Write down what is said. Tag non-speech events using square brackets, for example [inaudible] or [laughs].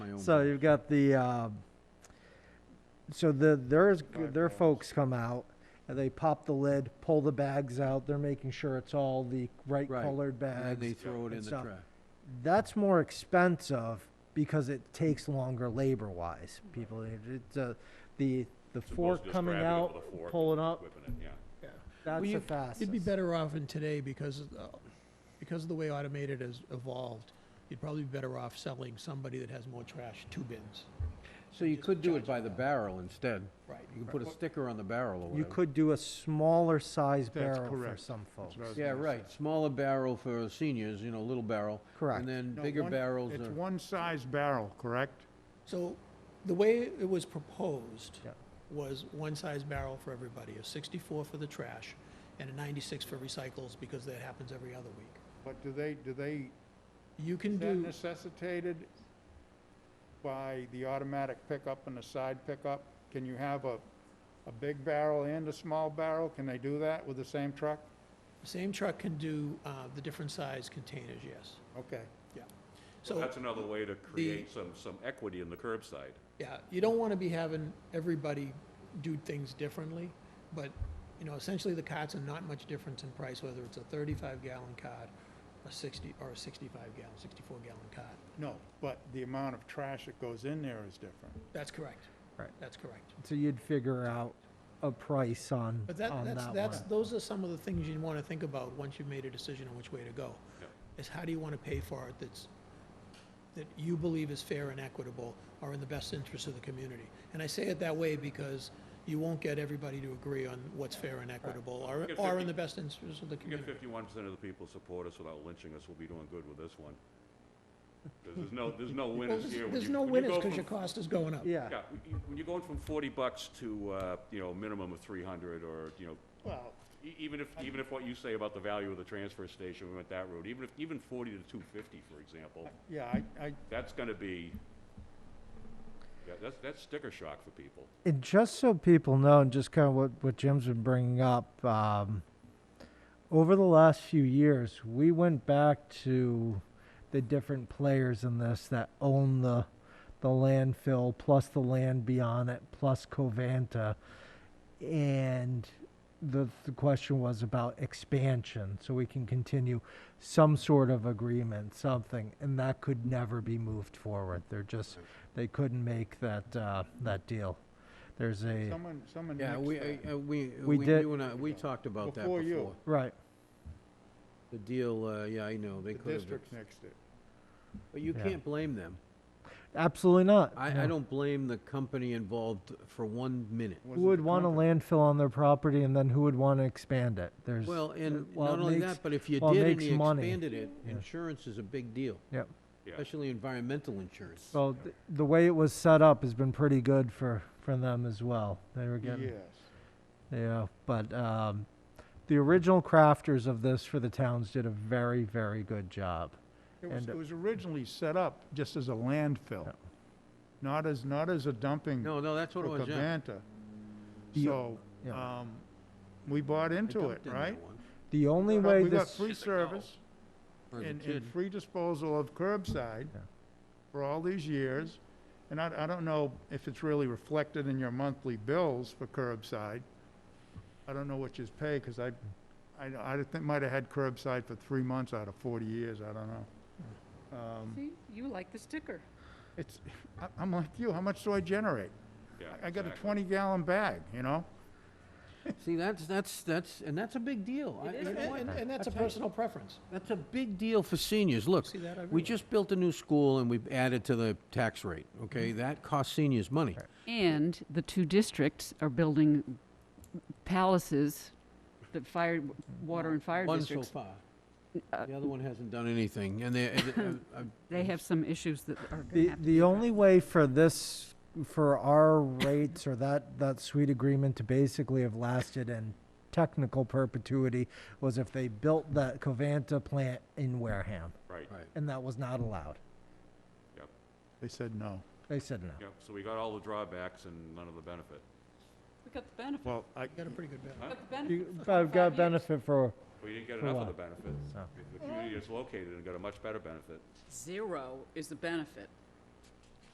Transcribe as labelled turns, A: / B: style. A: So you've got the, uh, so the, there's, their folks come out, and they pop the lid, pull the bags out, they're making sure it's all the right
B: Right,
A: colored
B: And then they
A: bags.
B: throw it in
A: and
B: the
A: stuff.
B: trash.
A: That's more expensive because it takes longer labor-wise, people, it's, uh, the, the
C: Supposed to
A: fork
C: just
A: coming
C: grabbing it
A: out,
C: with a fork
A: pulling
C: and
A: up,
C: whipping it, yeah.
A: that's
D: Well,
A: the
D: you-
A: fastest.
D: You'd be better off in today because, of, uh, because of the way automated has evolved, you'd probably be better off selling somebody that has more trash, two bins.
B: So you could do it by the barrel instead.
D: Right.
B: You could put a sticker on the barrel or
A: You
B: whatever.
A: could do a smaller size
E: That's
A: barrel for
E: correct.
A: some folks.
E: what I was
B: Yeah,
E: gonna
B: right, smaller barrel for seniors, you know, little barrel.
A: Correct.
B: And then
E: No,
B: bigger
E: one-
B: barrels
E: It's
B: are,
E: one size barrel, correct?
D: So the way it was proposed
A: Yeah.
D: was one size barrel for everybody, a 64 for the trash and a 96 for recycles because that happens every other week.
E: But do they, do they,
D: You can
E: is that
D: do,
E: necessitated by the automatic pickup and the side pickup? Can you have a, a big barrel and a small barrel? Can they do that with the same truck?
D: same truck can do uh, the different size containers, yes.
E: Okay.
C: So
D: So,
C: that's another way to create some, some equity in the curbside.
D: yeah, you don't want to be having everybody do things differently, but, you know, essentially the carts are not much difference in price, whether it's a 35 gallon cart, a 60, or a 65 gallon, 64 gallon cart.
E: No, but the amount of trash that goes in there is different.
D: That's correct.
A: Right.
D: That's correct.
A: So you'd figure out a price on,
D: But that,
A: on
D: that's,
A: that
D: that's,
A: one.
D: those are some of the things you want to think about once you've made a decision on which way to go.
C: Yeah.
D: Is how do you want to pay for it that's, that you believe is fair and equitable or in the best interest of the community? And I say it that way because you won't get everybody to agree on what's fair and equitable or,
C: Get
D: or
C: 50
D: in the best interest of the
C: If you get
D: community.
C: fifty-one percent of the people support us without lynching us, we'll be doing good with this one. 'Cause there's no, there's no
D: Well,
C: winners
D: there's-
C: here. When
D: There's
C: you-
D: no
C: when you
D: winners
C: go
D: because
C: from-
D: your cost is going up.
A: Yeah.
C: Yeah, when you- when you're going from forty bucks to, uh, you know, a minimum of three hundred or, you know,
E: Well,
C: e- even if, even if what you say about the value of the transfer station, we went that route, even if, even forty to two fifty, for example,
E: yeah, I, I,
C: that's gonna be, yeah, that's, that's sticker shock for people.
A: And just so people know, and just kind of what, what Jim's been bringing up, um, over the last few years, we went back to the different players in this that own the, the landfill, plus the land beyond it, plus Covanta. And the, the question was about expansion, so we can continue some sort of agreement, something, and that could never be moved forward. They're just, they couldn't make that, uh, that deal. There's a,
E: someone, someone
B: yeah,
E: mixed
B: we,
E: that.
B: uh, uh, we,
A: We
B: we,
A: did-
B: you and I, we talked about that
E: Before you.
B: before.
A: right,
B: The deal, uh, yeah, I know, they
E: The
B: could have,
E: district mixed it.
B: but you
A: Yeah.
B: can't blame them.
A: absolutely not.
B: I, I don't blame the company involved for one minute.
A: Who
E: Wasn't
A: would
E: the
A: want a
E: company.
A: landfill on their property and then who would want to expand it? There's.
B: Well, and
A: while it
B: not only
A: makes-
B: that, but if you
A: while it
B: did and
A: makes
B: you
A: money.
B: expanded it,
A: Yeah.
B: insurance is a big deal,
A: Yep.
C: Yeah,
B: especially environmental insurance.
A: Well, th- the way it was set up has been pretty good for, for them as well. They were getting,
E: Yes.
A: yeah, but, um, the original crafters of this for the towns did a very, very good job.
E: It was,
A: And, uh,
E: it was originally set up just as a landfill, not as, not as a dumping
B: No,
E: for
B: no, that's what it was, yeah.
E: Covanta.
A: The-
E: So,
A: yeah.
E: um, we bought
B: I
E: into it,
B: dumped in that
E: right?
B: one. Or
A: The only
E: But
A: way
E: We got
A: this,
E: free service
B: the
E: and,
B: kid.
E: and free disposal of curbside
A: Yeah.
E: for all these years. And I, I don't know if it's really reflected in your monthly bills for curbside. I don't know what you pay, because I, I, I think, might have had curbside for three months out of forty years, I don't know. Um,
F: See, you like the sticker.
E: It's, I- I'm like you, how much do I generate?
C: yeah,
E: I got a
C: exactly.
E: twenty gallon bag, you know?
B: See, that's, that's, that's, and that's a big deal. I-
D: And,
B: you know what?
D: and- and that's a personal preference.
B: That's a big deal for seniors. Look,
D: See that
B: we
D: everywhere.
B: just built a new school and we've added to the tax rate,
E: Mm-hmm.
B: okay? That costs seniors money.
F: And the two districts are building palaces, the fire, water and fire
B: One so
F: districts.
B: far.
E: Uh,
B: The other one hasn't done anything and uh, they,
E: [laughs]
F: They have some issues that are going to
A: the,
F: happen.
A: the only way for this, for our rates or that, that sweet agreement to basically have lasted in technical perpetuity was if they built that Covanta plant in Wareham,
C: Right,
B: Right.
A: and that was not allowed.
C: yep.
E: They said no.
A: They said no.
C: Yeah, so we got all the drawbacks and none of the benefit.
F: We got the benefit,
E: Well, I,
D: You got a pretty good benefit.
F: we got the
A: You-
F: benefit.
A: but I've got benefit for,
C: We didn't get
A: For
C: enough of the
A: what? Oh.
C: benefit.
A: So.
C: The community is located and got a much better benefit.
F: Zero is the benefit.